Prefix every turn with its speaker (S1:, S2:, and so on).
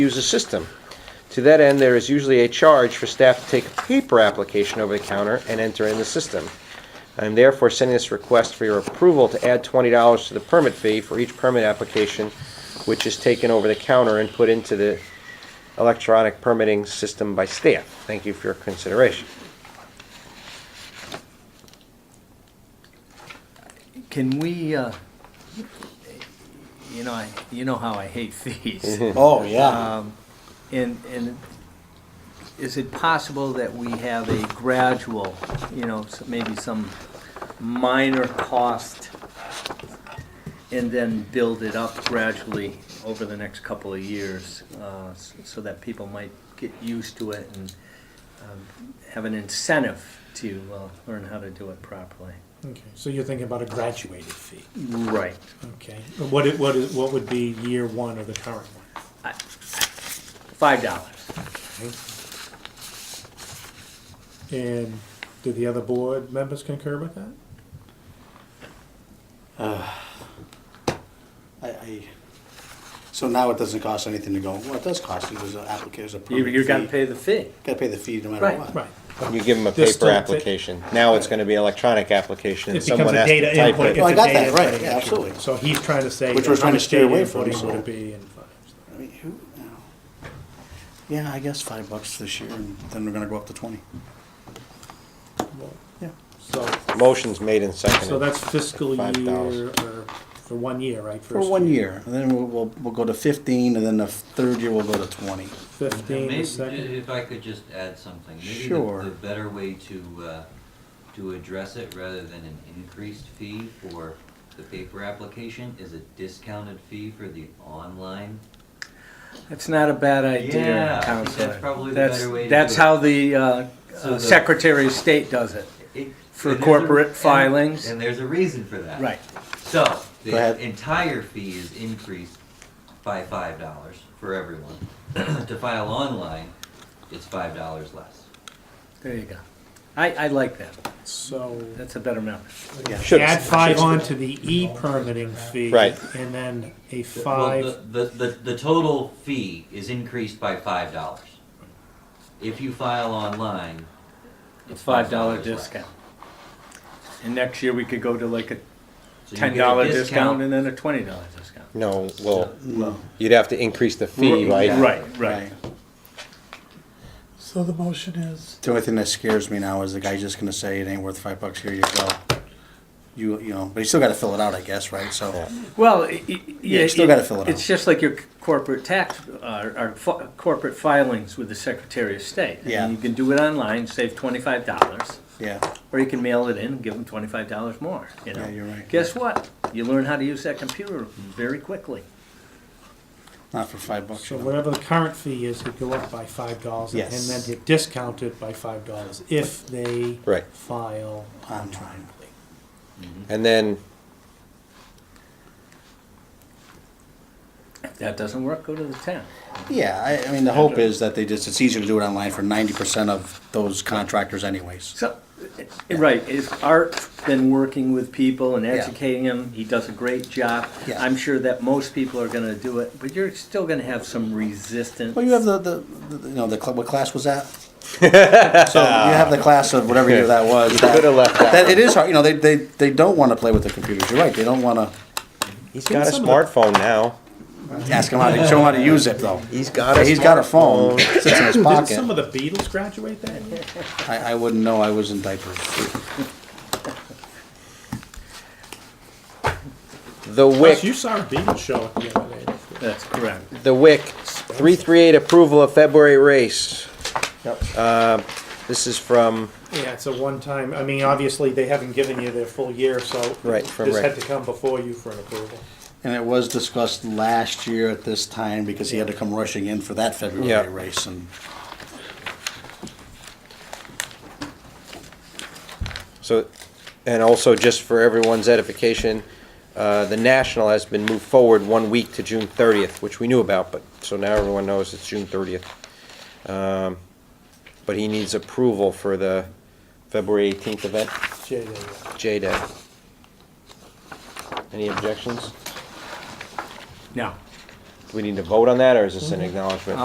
S1: use the system. To that end, there is usually a charge for staff to take a paper application over the counter and enter in the system. I am therefore sending this request for your approval to add $20 to the permit fee for each permit application which is taken over the counter and put into the electronic permitting system by staff. Thank you for your consideration.
S2: Can we, uh, you know, I, you know how I hate fees.
S3: Oh,
S4: Uh,
S3: yeah.
S2: And, and is it possible that we have a gradual, you know, s- maybe some minor cost and then build it up gradually over the next couple of years, uh, s- so that people might get used to it and um, have an incentive to uh, learn how to do it properly?
S3: Okay, so you're thinking about a graduated fee,
S2: Right.
S3: okay? And What it, what is, what would be year one of the current one?
S2: Five dollars.
S3: And do the other board members concur with that?
S4: I, I, so now it doesn't cost anything to go, well, it does cost, you. there's an applicant, there's a
S2: You,
S4: permit
S2: you gotta
S4: fee.
S2: pay the fee.
S4: Gotta pay the fee no matter
S2: Right.
S4: what.
S3: Right.
S1: You give them a
S3: They're
S1: paper
S3: still-
S1: application. Now it's going to be electronic application. and
S3: It becomes
S1: Someone
S3: a
S1: has to
S3: data
S1: type
S3: input.
S1: it.
S4: Well, I
S3: It's a
S4: got that,
S3: data
S4: right,
S3: input
S4: yeah,
S3: issue.
S4: absolutely.
S3: So he's trying to say.
S4: Which we're
S3: how
S4: trying to
S3: much
S4: stay
S3: data
S4: away from,
S3: inputting
S4: so-
S3: Would it be in five?
S4: I mean, who, no. Yeah, I guess five bucks this year, and then we're gonna go up to twenty. Yeah.
S3: So,
S1: Motion's made and seconded.
S3: so that's fiscal
S1: Five
S3: year,
S1: thousand.
S3: or for one year, right?
S4: For
S3: First
S4: one year, and then we'll, we'll, we'll go to fifteen, and then the third year we'll go to twenty.
S3: Fifteen,
S5: Maybe,
S3: the second.
S5: If I could just add something. Maybe the-
S4: Sure.
S5: The better way to, uh, to address it, rather than an increased fee for the paper application, is a discounted fee for the online.
S2: That's not a bad
S5: Yeah, I
S2: idea,
S5: think
S2: Counselor.
S5: that's probably the
S2: That's-
S5: better way to
S2: That's
S5: do it.
S2: how the uh, uh,
S5: So the-
S2: Secretary of State does it.
S5: It-
S2: For
S5: and there's a-
S2: corporate
S5: and-
S2: filings.
S5: And there's a reason for that.
S2: Right.
S5: So,
S4: Go ahead.
S5: the entire fee is increased by five dollars for everyone. To file online, it's five dollars less.
S2: There you go. I, I like that.
S3: So.
S2: That's a better number.
S1: Should-
S3: Add five on to the e-permitting fee.
S1: Right.
S3: And then a
S5: Well,
S3: five,
S5: the, the, the, the total fee is increased by five dollars. If you file online,
S2: It's five dollar
S5: $5 less.
S2: discount. And next year, we could go to like a
S5: so you
S2: ten
S5: get
S2: dollar
S5: a
S2: discount
S5: discount.
S2: and then a twenty dollar discount.
S1: No, well,
S4: No.
S1: you'd have to increase the fee, right?
S2: Right, right.
S6: So the motion is,
S4: The only thing that scares me now is the guy's just gonna say it ain't worth five bucks, here you go. You, you know, but you still gotta fill it out, I guess, right, so.
S2: Well, i- i- yeah.
S4: you still gotta fill it
S2: It's
S4: out.
S2: just like your c- corporate tax, uh, or fi- corporate filings with the Secretary of State. I mean,
S4: Yeah.
S2: You can do it online, save twenty-five dollars.
S4: Yeah,
S2: Or you can mail it in and give them twenty-five dollars more, you know?
S4: Yeah, you're right.
S2: Guess what? You learn how to use that computer very quickly.
S4: not for five bucks.
S3: so
S4: you know.
S3: whatever the current fee is, he'd go up by five dollars. And
S4: Yes.
S3: then he'd discount it by five dollars if they.
S1: Right.
S3: File.
S4: I'm trying.
S1: And then,
S2: If that doesn't work, go to the town.
S4: Yeah, I, I mean, the hope is that they just, it's easier to do it online for ninety percent of those contractors anyways.
S2: So, eh, right, if Art's been working with people and
S4: Yeah.
S2: educating them, he does a great job.
S4: Yeah.
S2: I'm sure that most people are gonna do it, but you're still gonna have some resistance.
S4: Well, you have the, the, the- you know, the, cl- what class was that? So you have the class of whatever year that was.
S1: could have
S4: That,
S1: left that.
S4: that- it is hard, you know, they, they, they don't wanna play with the computers, you're right, they don't wanna
S1: He's got a
S3: some of
S1: smartphone now.
S4: ask them how to, show them how to use it though.
S1: He's got a
S4: He's got a phone,
S1: smartphone.
S4: sits in his
S3: Didn't some
S4: pocket.
S3: of the Beatles graduate that year?
S4: I, I wouldn't know, I was in diapers.
S1: The
S3: Plus,
S1: WIC,
S3: you saw a Beatles show at the other day.
S2: That's correct.
S1: the WIC, 338 approval of February race. Yep. This is from,
S3: Yeah, it's a one-time, I mean, obviously, they haven't given you their full year, so.
S1: Right, from
S3: This had
S1: right.
S3: to come before you for an approval.
S4: And it was discussed last year at this time because he had to come rushing in for that
S1: Yeah.
S4: February race and.
S1: so, and also just for everyone's edification, uh, the National has been moved forward one week to June 30th, which we knew about, but, so now everyone knows it's June 30th. Um, But he needs approval for the February 18th event.
S3: Jay, there you go.
S1: J-Day. Any objections?
S2: Now,
S1: we need to vote on that, or is this an acknowledgement?